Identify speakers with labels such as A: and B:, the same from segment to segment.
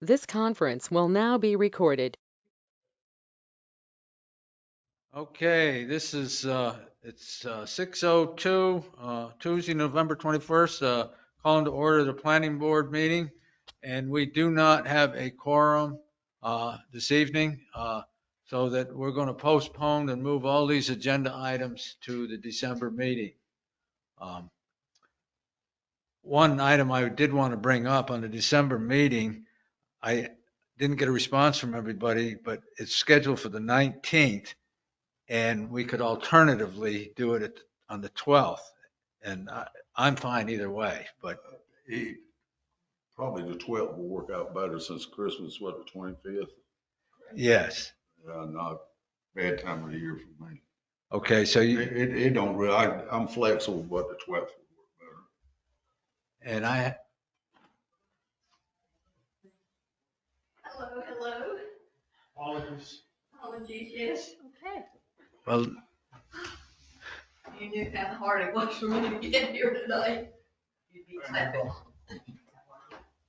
A: This conference will now be recorded.
B: Okay, this is, uh, it's uh, 6:02, uh, Tuesday, November 21st, uh, calling to order the planning board meeting. And we do not have a quorum uh, this evening, uh, so that we're going to postpone and move all these agenda items to the December meeting. Um, One item I did want to bring up on the December meeting, I didn't get a response from everybody, but it's scheduled for the 19th. And we could alternatively do it at- on the 12th. And I, I'm fine either way, but
C: He, probably the twelfth will work out better since Christmas, what, the twenty-fifth?
B: yes.
C: Uh, not bad time of the year for me.
B: Okay, so
C: It,
B: you,
C: it, it don't really, I, I'm flexible, but the twelfth would work
B: and I,
D: Hello, hello. Apologies. Apologies, yes.
B: well,
D: You knew how hard it was for me to get here tonight. You'd be clapping.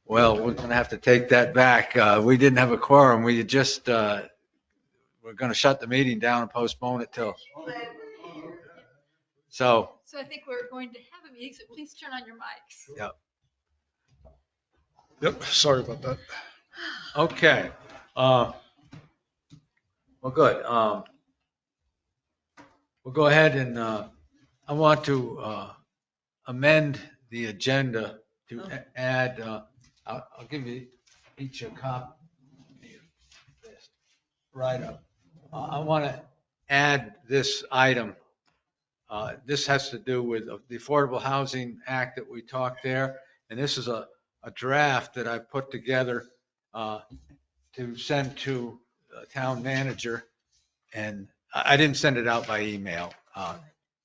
B: well, we're going to have to take that back. Uh, we didn't have a quorum. We had just, uh, we're going to shut the meeting down and postpone it till, so,
E: So I think we're going to have a meeting, so please turn on your mics.
F: Yep, sorry about that.
B: okay. Uh, Well, good. Um, We'll go ahead and, uh, I want to uh, amend the agenda to a- add, uh, I'll I'll give you each a copy. of this Right up. Uh, I want to add this item. Uh, This has to do with the Affordable Housing Act that we talked there. And this is a a draft that I put together uh, to send to uh, town manager. And I I didn't send it out by email. uh,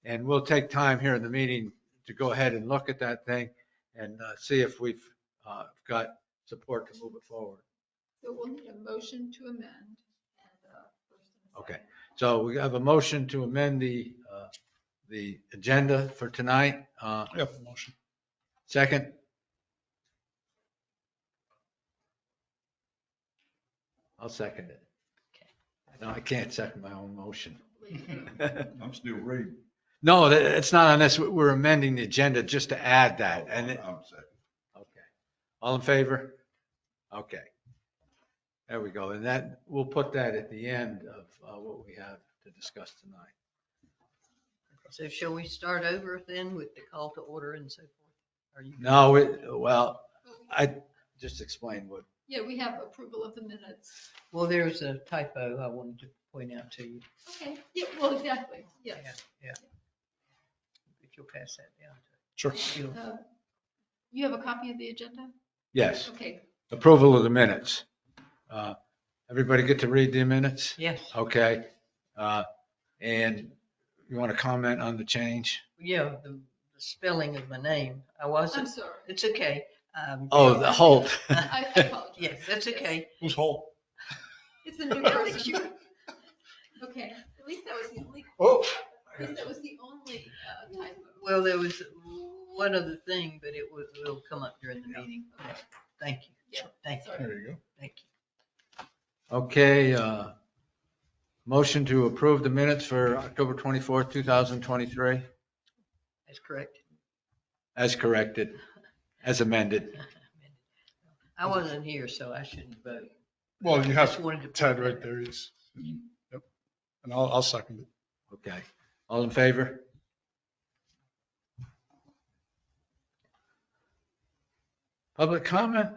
B: And we'll take time here in the meeting to go ahead and look at that thing and uh, see if we've uh, got support to move it forward.
E: So we'll need a motion to amend. uh,
B: Okay, so we have a motion to amend the, uh, the agenda for tonight. Uh,
F: Yep, motion.
B: Second? I'll second it. No, I can't second my own motion.
C: better. I'm still reading.
B: No, that- it's not on this. We're amending the agenda just to add that. And, it-
C: I'm second.
B: okay. All in favor? Okay. There we go. And that, we'll put that at the end of uh, what we have to discuss tonight.
D: So shall we start over then with the call to order and so forth? Are you?
B: No, it- well, I just explained what,
E: Yeah, we have approval of the minutes.
D: Well, there's a typo I wanted to point out to you.
E: Okay, yeah, well, exactly, yes.
D: Yeah. If you'll pass that down
F: Sure.
D: to you.
E: Uh, You have a copy of the agenda?
B: yes.
E: Okay,
B: Approval of the minutes. Uh, Everybody get to read the minutes?
D: Yes,
B: Okay. Uh, And you want to comment on the change?
D: yeah, the the spelling of my name. I
E: I'm
D: wasn't,
E: sorry.
D: it's okay. Um,
B: Oh, the whole,
E: I I apologize.
D: Yes, that's okay.
F: Who's whole?
E: It's a new person. Okay, at least that was the only,
F: Oh.
E: at least that was the only uh, typo.
D: Well, there was one other thing, but it will, will come up during the meeting.
E: Okay,
D: Thank you.
E: Yeah.
D: Thank you.
E: Sorry.
F: There you go.
D: Thank you.
B: okay. uh, Motion to approve the minutes for October 24th, 2023,
D: That's correct.
B: as corrected, as amended.
D: I wasn't here, so I shouldn't vote.
F: Well, you have
D: Just wanted to.
F: Ted right there. He's, yep. And I'll, I'll second it.
B: Okay. All in favor? Public comment?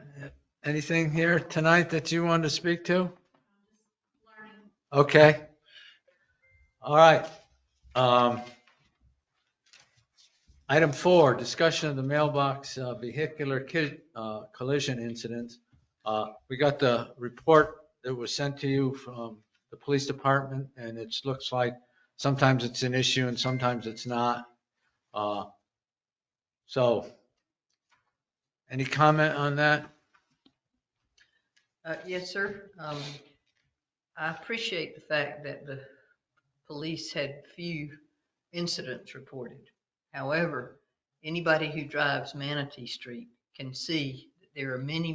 B: Anything here tonight that you want to speak to?
E: Learning.
B: Okay. All right. Um, Item four, discussion of the mailbox uh, vehicular ki- uh, collision incident. Uh, We got the report that was sent to you from the police department, and it looks like sometimes it's an issue and sometimes it's not. Uh, So, any comment on that?
D: Uh, yes, sir. Um, I appreciate the fact that the police had few incidents reported. However, anybody who drives Manatee Street can see that there are many